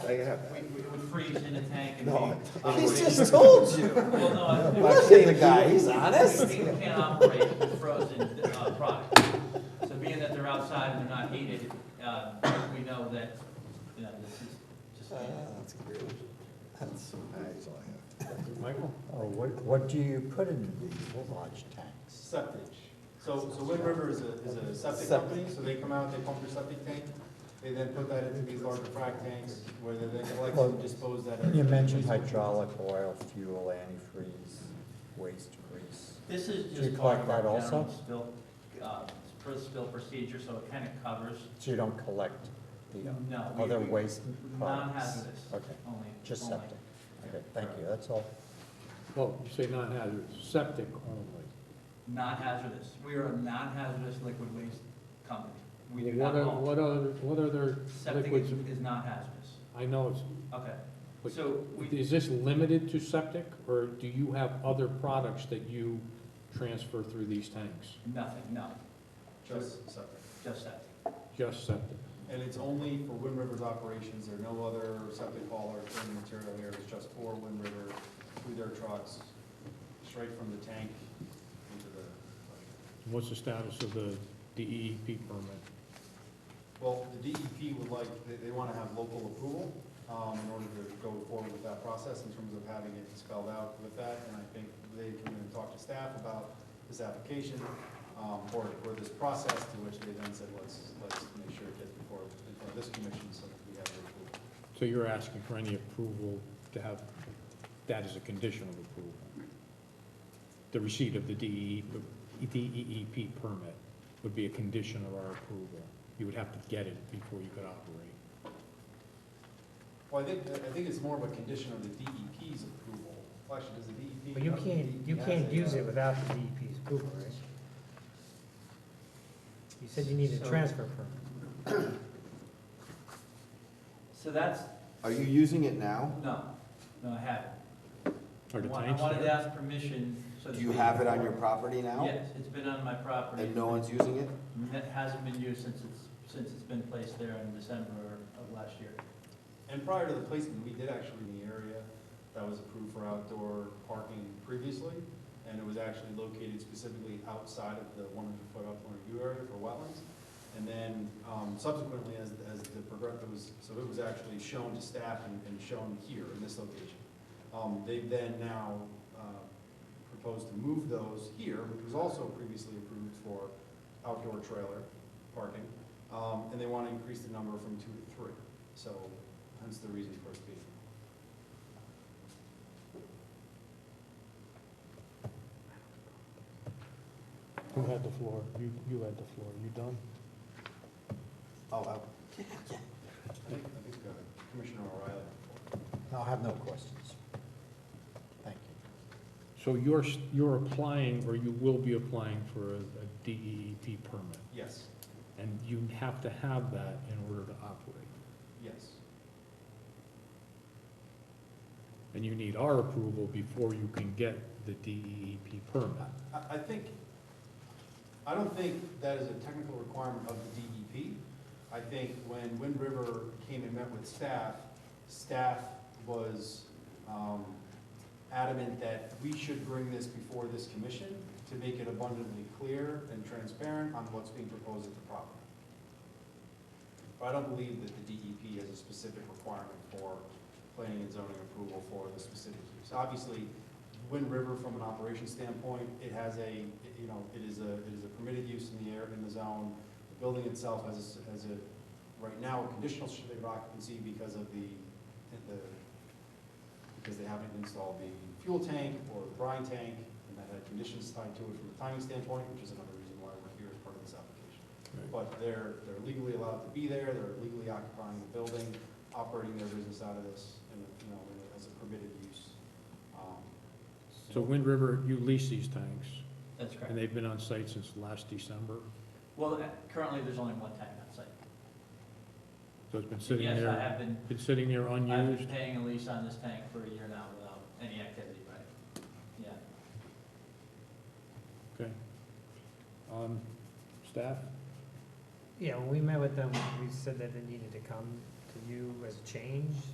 I have We, that. we would freeze in a tank and. No, be I- He's operating- just told you. Well, no, I- No, Look at the guy, he's honest. We we can't operate with frozen uh, products. So being that they're outside and they're not heated, uh, we know that, you know, this is just. Uh, That's great. That's, That's all I Michael? Oh, what, what do you put into these large tanks? Septic. So, so Wind River is a, is a septic company, so they come out, they pump your septic tank, they then put that into these larger frac tanks, where they then collect and dispose that. at- You mentioned hydraulic oil, fuel, antifreeze, waste grease. This is Do you just part collect of our that also? general spill, uh, spr- spill procedure, so it kind of covers So you don't collect the No, we- other we- waste products? non-hazardous, Okay, only. Oh, just only. septic. Okay, thank you, that's all. Well, you say non-hazardous, septic only. Non-hazardous. We are a non-hazardous liquid waste company. We do What not are, own. what are, what are their Septic liquids? is is not hazardous. I know, it's- Okay. But- So we is this limited to septic, or do you have other products that you transfer through these tanks? Nothing, no, Just septic. just septic. Just septic? And it's only for Wind River's operations, there are no other septic haul or cleaning material here, it's just for Wind River, through their trucks, straight from the tank into the, And What's the status of the DEP permit? Well, the DEP would like, they, they want to have local approval, um, in order to go forward with that process in terms of having it spelled out with that, and I think they can then talk to staff about this application, um, or, or this process, to which they then said, let's, let's make sure it gets before, before this commission, so that we have the approval. So you're asking for any approval to have that as a condition of approval? The receipt of the E DE DEEP E permit would be a condition of our approval. You would have to get it before you could operate. Well, I think, I think it's more of a condition of the DEP's approval, Well, actually, does the DEP? But you the can't, you DEP has can't a, use uh, it without the DEP's approval, right? You said you needed a So- transfer permit. So that's, have. Are you using it now? no, no, I haven't. Are the I wa- tanks I wanted to there? ask permission so that. Do you we- have it on your property now? Yes, it's been on my property. And no one's using it? And It hasn't been used since it's, since it's been placed there in December of last year. And prior to the placement, we did actually in the area that was approved for outdoor parking previously, and it was actually located specifically outside of the one hundred foot upland review area for wetlands. And then um, subsequently, as, as the progress, it was, so it was actually shown to staff and, and shown here in this location. Um, They've then now uh, proposed to move those here, which was also previously approved for outdoor trailer parking, um, and they want to increase the number from two to three. So hence the reason for speed. Who had the floor? You, you had the floor. You done? Oh, I. I think, I think uh, Commissioner O'Reilly. I'll have no questions. Thank you. So you're, s- you're applying, or you will be applying for a a DEEP permit, Yes, and you have to have that in order to operate. yes, And you need our approval before you can get the DEEP permit. I, I think, I don't think that is a technical requirement of the DEP. I think when Wind River came and met with staff, staff was um, adamant that we should bring this before this commission to make it abundantly clear and transparent on what's being proposed at the property. But I don't believe that the DEP has a specific requirement for planning and zoning approval for the specific use. Obviously, Wind River, from an operation standpoint, it has a, you know, it is a, it is a permitted use in the air, in the zone. The building itself has a, s- has a, right now, a conditional certificate of occupancy because of the, the, because they haven't installed the fuel tank or the brine tank, and that had conditions tied to it from a timing standpoint, which is another reason why we're here as part of this application. But they're, they're legally allowed to be there, they're legally occupying the building, operating their business out of this, and, you know, as a permitted use. Um, So Wind River, you lease these tanks, That's correct. and they've been on site since last December, Well, uh, currently, there's only one tank on site. so it's been sitting Yes, I there, have been, been sitting there I've been unused. paying a lease on this tank for a year now without any activity, right? Yeah. Okay. Um, Staff, Yeah, when we met with them, we said that it needed to come to you as a change,